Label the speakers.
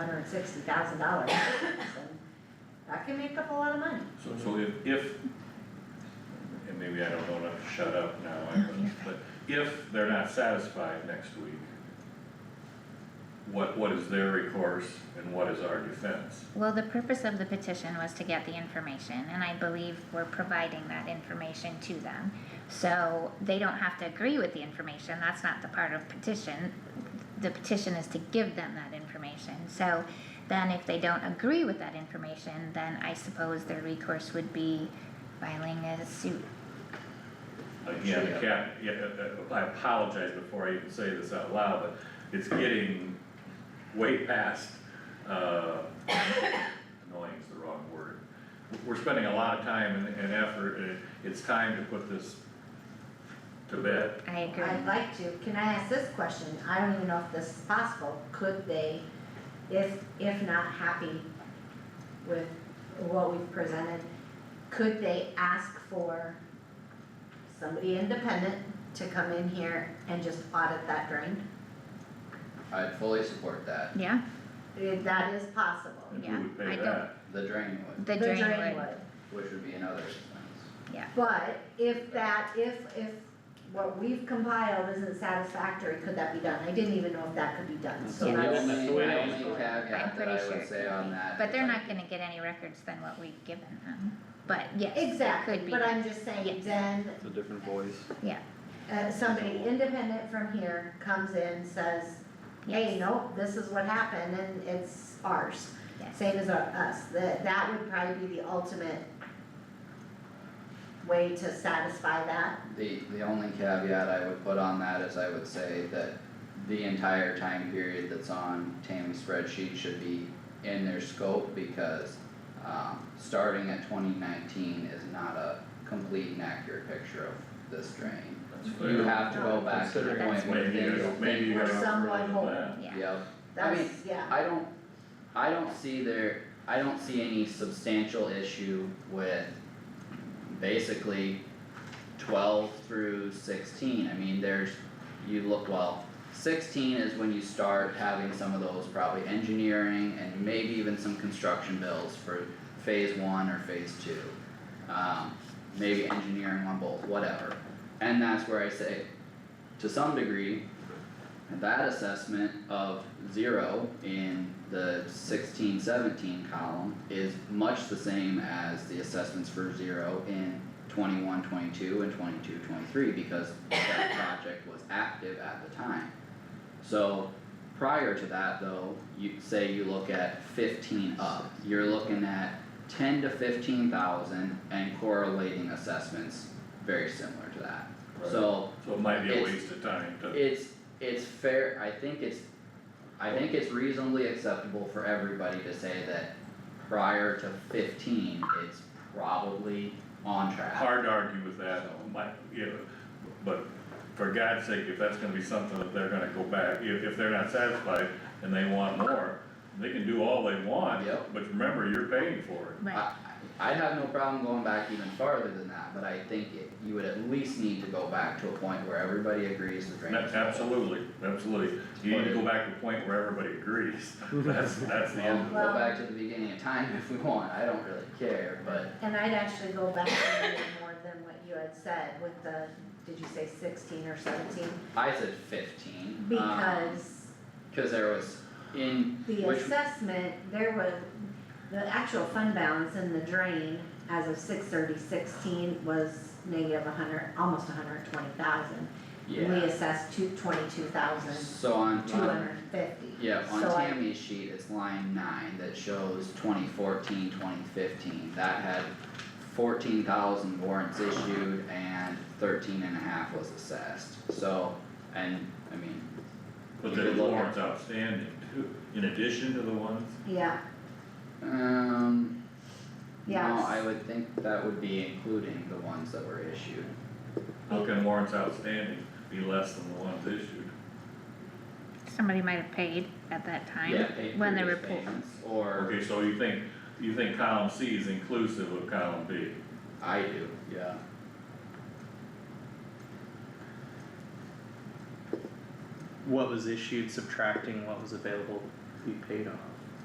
Speaker 1: hundred and sixty thousand dollars. That can make up a lot of money.
Speaker 2: So, so if, if, and maybe I don't wanna shut up now, I don't, but if they're not satisfied next week, what, what is their recourse and what is our defense?
Speaker 3: Well, the purpose of the petition was to get the information, and I believe we're providing that information to them. So they don't have to agree with the information, that's not the part of petition. The petition is to give them that information, so then if they don't agree with that information, then I suppose their recourse would be filing a suit.
Speaker 2: Again, the cap, yeah, uh, uh, I apologize before I even say this out loud, but it's getting way past, uh, annoying is the wrong word. We're spending a lot of time and, and effort, and it's time to put this to bed.
Speaker 3: I
Speaker 1: I'd
Speaker 3: agree.
Speaker 1: like to, can I ask this question? I don't even know if this is possible. Could they, if, if not happy with what we've presented, could they ask for somebody independent to come in here and just audit that drain?
Speaker 4: I fully support that,
Speaker 3: Yeah,
Speaker 1: If That is possible.
Speaker 2: And
Speaker 3: Yeah,
Speaker 2: who would
Speaker 3: I
Speaker 2: pay
Speaker 3: don't-
Speaker 2: that?
Speaker 4: the drain would,
Speaker 3: the drain would,
Speaker 1: would.
Speaker 4: which would be another expense.
Speaker 1: But if that, if, if what we've compiled isn't satisfactory, could that be done? I didn't even know if that could be done, so
Speaker 3: Yeah.
Speaker 4: The
Speaker 1: that's.
Speaker 4: only,
Speaker 5: the way
Speaker 4: the
Speaker 5: it is
Speaker 4: only
Speaker 5: going.
Speaker 3: I'm
Speaker 4: caveat that
Speaker 3: pretty
Speaker 4: I
Speaker 3: sure.
Speaker 4: would
Speaker 3: it
Speaker 4: say
Speaker 3: could
Speaker 4: on
Speaker 3: be.
Speaker 4: that.
Speaker 3: But
Speaker 4: is
Speaker 3: they're
Speaker 4: like-
Speaker 3: not gonna get any records than what we've given them, but yes, it
Speaker 1: Exactly,
Speaker 3: could be.
Speaker 1: but I'm just saying,
Speaker 3: Yes.
Speaker 1: then,
Speaker 5: It's a different voice.
Speaker 1: uh, somebody independent from here comes in, says, hey,
Speaker 3: Yes.
Speaker 1: nope, this is what happened and it's ours.
Speaker 3: Yes.
Speaker 1: Same as our- us, that, that would probably be the ultimate way to satisfy that.
Speaker 4: The, the only caveat I would put on that is I would say that the entire time period that's on Tammy's spreadsheet should be in their scope because um, starting at twenty nineteen is not a complete and accurate picture of this drain.
Speaker 2: That's
Speaker 4: You
Speaker 2: fair.
Speaker 4: have to go back to the
Speaker 5: Considering
Speaker 4: point where
Speaker 2: Maybe, you
Speaker 4: things.
Speaker 2: gotta- maybe you
Speaker 1: Or
Speaker 2: gotta
Speaker 1: someone
Speaker 2: further than
Speaker 1: hold.
Speaker 2: that.
Speaker 3: Yeah.
Speaker 4: Yep, I
Speaker 1: That's,
Speaker 4: mean,
Speaker 1: yeah,
Speaker 4: I don't, I don't see there, I don't see any substantial issue with basically twelve through sixteen, I mean, there's, you look, well, sixteen is when you start having some of those probably engineering and maybe even some construction bills for phase one or phase two. Um, maybe engineering on both, whatever, and that's where I say, to some degree, that assessment of zero in the sixteen seventeen column is much the same as the assessments for zero in 21, 22, and 22, 23 because that project was active at the time. So prior to that though, you say you look at fifteen up, you're looking at ten to fifteen thousand and correlating assessments very similar to that.
Speaker 2: Right.
Speaker 4: So
Speaker 2: So it might be a
Speaker 4: It's-
Speaker 2: waste of time to,
Speaker 4: it's, it's fair, I think it's, I think it's reasonably acceptable for everybody to say that prior to fifteen, it's probably on track.
Speaker 2: hard to argue with that, might, you know, but for God's sake, if that's gonna be something that they're gonna go back, if, if they're not satisfied and they want more, they can do all they want,
Speaker 4: Yep.
Speaker 2: but remember, you're paying for it.
Speaker 3: Right,
Speaker 4: I, I'd have no problem going back even farther than that, but I think it, you would at least need to go back to a point where everybody agrees the drainage.
Speaker 2: That's absolutely, absolutely, you need to go back to a point where everybody agrees, that's, that's the
Speaker 4: Well,
Speaker 2: end.
Speaker 4: go back to the beginning of time if we want, I don't really care, but
Speaker 1: and I'd actually go back a little more than what you had said with the, did you say sixteen or seventeen?
Speaker 4: I said fifteen. um,
Speaker 1: Because
Speaker 4: Cause there was in,
Speaker 1: the
Speaker 4: which
Speaker 1: assessment, there was, the actual fund balance in the drain as of six thirty sixteen was negative a hundred, almost a hundred and twenty thousand.
Speaker 4: yeah.
Speaker 1: We assessed two, twenty-two thousand,
Speaker 4: So on,
Speaker 1: two
Speaker 4: on
Speaker 1: hundred and fifty.
Speaker 4: Yeah, on
Speaker 1: So I-
Speaker 4: Tammy's sheet, it's line nine that shows 2014, 2015. that had fourteen thousand warrants issued and thirteen and a half was assessed, so, and, I mean,
Speaker 2: But
Speaker 4: You
Speaker 2: there's
Speaker 4: could look at-
Speaker 2: warrants outstanding too, in addition to the ones,
Speaker 1: Yeah,
Speaker 4: um, no,
Speaker 1: Yes.
Speaker 4: I would think that would be including the ones that were issued.
Speaker 2: how can warrants outstanding be less than the ones issued?
Speaker 3: somebody might have paid at that
Speaker 4: Yeah,
Speaker 3: time,
Speaker 4: paid
Speaker 3: when the
Speaker 4: previous
Speaker 3: report,
Speaker 4: payments, or,
Speaker 2: Okay, so you think, you think column C is inclusive of column B?
Speaker 4: I do, yeah.
Speaker 5: What was issued subtracting what was available to be paid on.